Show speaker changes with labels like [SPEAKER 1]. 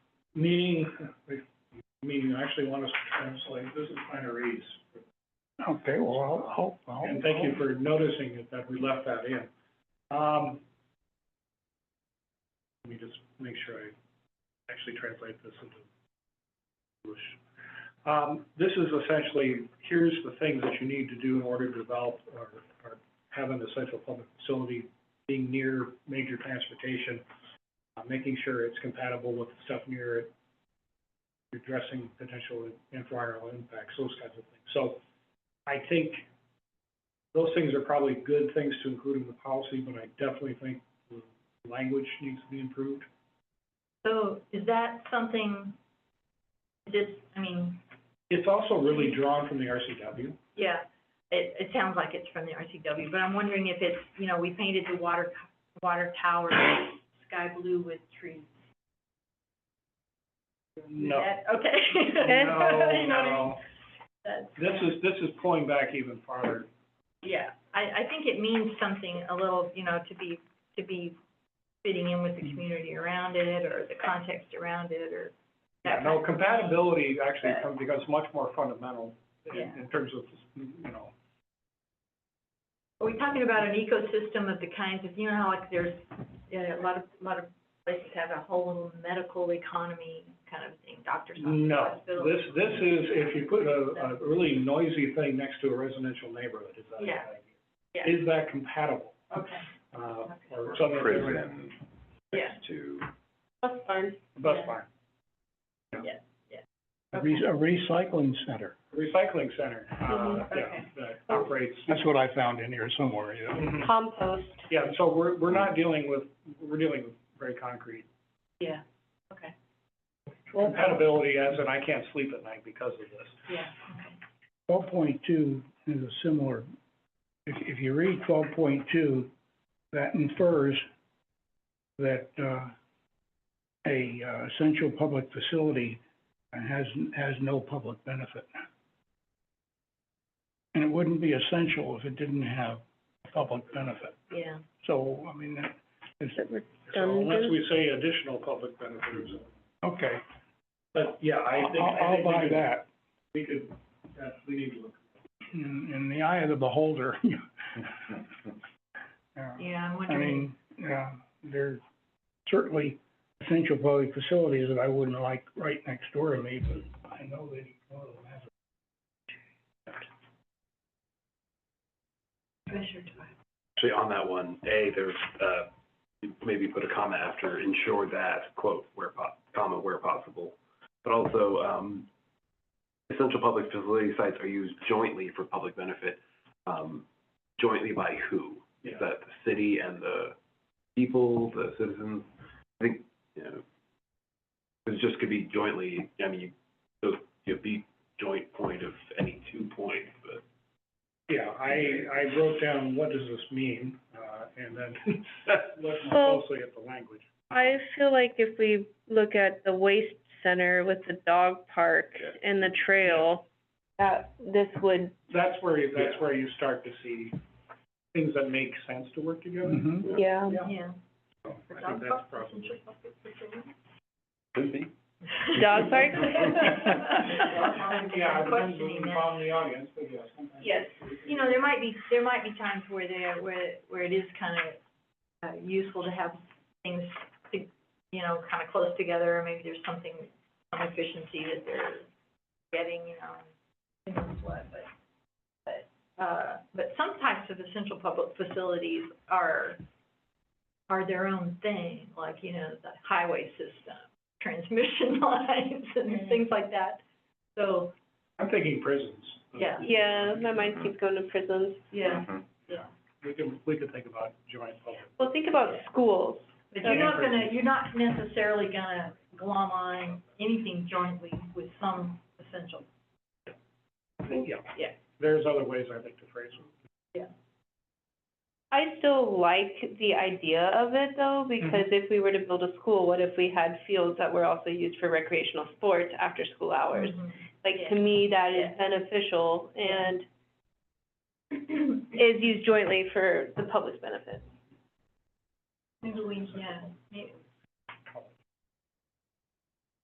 [SPEAKER 1] meaning, meaning I actually want us to translate, this is retirees.
[SPEAKER 2] Okay, well, I'll, I'll. I'll-
[SPEAKER 1] And thank you for noticing it, that we left that in. Um, let me just make sure I actually translate this into English. Um, this is essentially, here's the things that you need to do in order to develop or, or have an essential public facility, being near major transportation, uh, making sure it's compatible with the stuff near it, addressing potential environmental impacts, those kinds of things. So I think those things are probably good things to include in the policy, but I definitely think the language needs to be improved.
[SPEAKER 3] So is that something, this, I mean,
[SPEAKER 1] It's also really drawn from the RCW.
[SPEAKER 3] yeah, it, it sounds like it's from the RCW, but I'm wondering if it's, you know, we painted the water, water tower sky blue with trees.
[SPEAKER 1] No.
[SPEAKER 3] That- Okay.
[SPEAKER 1] No,
[SPEAKER 3] You know what I mean?
[SPEAKER 1] no.
[SPEAKER 3] That's-
[SPEAKER 1] This is, this is pulling back even farther.
[SPEAKER 3] Yeah, I, I think it means something a little, you know, to be, to be fitting in with the community around it, or the context around it, or that
[SPEAKER 1] Yeah, no,
[SPEAKER 3] kind of thing.
[SPEAKER 1] compatibility actually becomes, becomes much more fundamental
[SPEAKER 3] Yeah.
[SPEAKER 1] in, in terms of, you know,
[SPEAKER 3] Are we talking about an ecosystem of the kinds of, you know, how like there's, yeah, a lot of, a lot of places have a whole little medical economy kind of thing, doctors' offices,
[SPEAKER 1] no.
[SPEAKER 3] hospitals.
[SPEAKER 1] This, this is, if you put a, a really noisy thing next to a residential neighborhood, is that?
[SPEAKER 3] Yeah, yeah.
[SPEAKER 1] Is that compatible,
[SPEAKER 3] Okay,
[SPEAKER 1] uh, or
[SPEAKER 4] or
[SPEAKER 1] something?
[SPEAKER 4] prison
[SPEAKER 3] yeah,
[SPEAKER 4] next to,
[SPEAKER 3] that's fine.
[SPEAKER 1] Bus
[SPEAKER 3] Yeah.
[SPEAKER 1] barn.
[SPEAKER 2] A re- a recycling center.
[SPEAKER 1] recycling center, uh,
[SPEAKER 3] Mhm,
[SPEAKER 1] yeah,
[SPEAKER 3] okay.
[SPEAKER 1] that operates.
[SPEAKER 2] That's what I found in here somewhere, yeah.
[SPEAKER 1] Mhm.
[SPEAKER 3] Compost.
[SPEAKER 1] Yeah, so we're, we're not dealing with, we're dealing with very concrete
[SPEAKER 3] Yeah, okay,
[SPEAKER 1] compatibility as in I can't sleep at night because of this.
[SPEAKER 3] yeah,
[SPEAKER 2] Twelve point two is a similar, if, if you read twelve point two, that infers that, uh, a uh, essential public facility has, has no public benefit. And it wouldn't be essential if it didn't have public benefit.
[SPEAKER 3] yeah.
[SPEAKER 2] So, I mean, that is,
[SPEAKER 1] So unless we say additional public benefits,
[SPEAKER 2] okay,
[SPEAKER 1] but yeah, I
[SPEAKER 2] I'll,
[SPEAKER 1] think, I
[SPEAKER 2] I'll
[SPEAKER 1] think we
[SPEAKER 2] buy
[SPEAKER 1] could-
[SPEAKER 2] that.
[SPEAKER 1] we could, uh, we need to look.
[SPEAKER 2] in, in the eye of the beholder. Yeah.
[SPEAKER 3] Yeah, I'm
[SPEAKER 2] I
[SPEAKER 3] wondering,
[SPEAKER 2] mean, yeah, there's certainly essential public facilities that I wouldn't like right next door to me, but I know that each one of them has. it.
[SPEAKER 3] Commissioner Toya.
[SPEAKER 4] actually on that one, A, there's, uh, maybe put a comma after, ensure that, quote, where po- comma, where possible. But also, um, essential public facility sites are used jointly for public benefit, um, jointly by who? Is that the city and the people, the citizens? I think, you know, it just could be jointly, I mean, you, so you'd be joint point of any two points, but
[SPEAKER 1] Yeah, I, I wrote down, what does this mean, uh, and then looked more
[SPEAKER 5] Well-
[SPEAKER 1] closely at the language.
[SPEAKER 5] I feel like if we look at the waste center with the dog park and the trail, that this would,
[SPEAKER 1] That's where, you- that's where you start to see things that make sense to work together.
[SPEAKER 5] yeah.
[SPEAKER 3] yeah.
[SPEAKER 1] So I think that's probably.
[SPEAKER 4] could be.
[SPEAKER 5] Dog park?
[SPEAKER 1] Yeah, it depends
[SPEAKER 3] Questioning
[SPEAKER 1] on
[SPEAKER 3] that.
[SPEAKER 1] on the audience, but yes. sometimes-
[SPEAKER 3] Yes, you know, there might be, there might be times where there, where, where it is kind of, uh, useful to have things, to, you know, kind of close together, or maybe there's something, some efficiency that they're getting, you know, who knows what, but, but, uh, but some types of essential public facilities are, are their own thing, like, you know, the highway system, transmission lines, and things like that, so,
[SPEAKER 1] I'm thinking prisons.
[SPEAKER 3] Yeah.
[SPEAKER 5] Yeah, my mind keeps going to prisons.
[SPEAKER 3] yeah, yeah.
[SPEAKER 1] We can, we could think about joint public.
[SPEAKER 5] Well, think about schools.
[SPEAKER 3] But you're not gonna, you're not necessarily gonna glom on anything jointly with some essential,
[SPEAKER 1] Yeah.
[SPEAKER 3] Yeah.
[SPEAKER 1] There's other ways I think to phrase it.
[SPEAKER 5] I still like the idea of it though, because if we were to build a school, what if we had fields that were also used for recreational sports after school hours? Like, to me, that is
[SPEAKER 3] Yeah.
[SPEAKER 5] beneficial and is used jointly for the public's benefit.
[SPEAKER 3] Maybe we, yeah, may-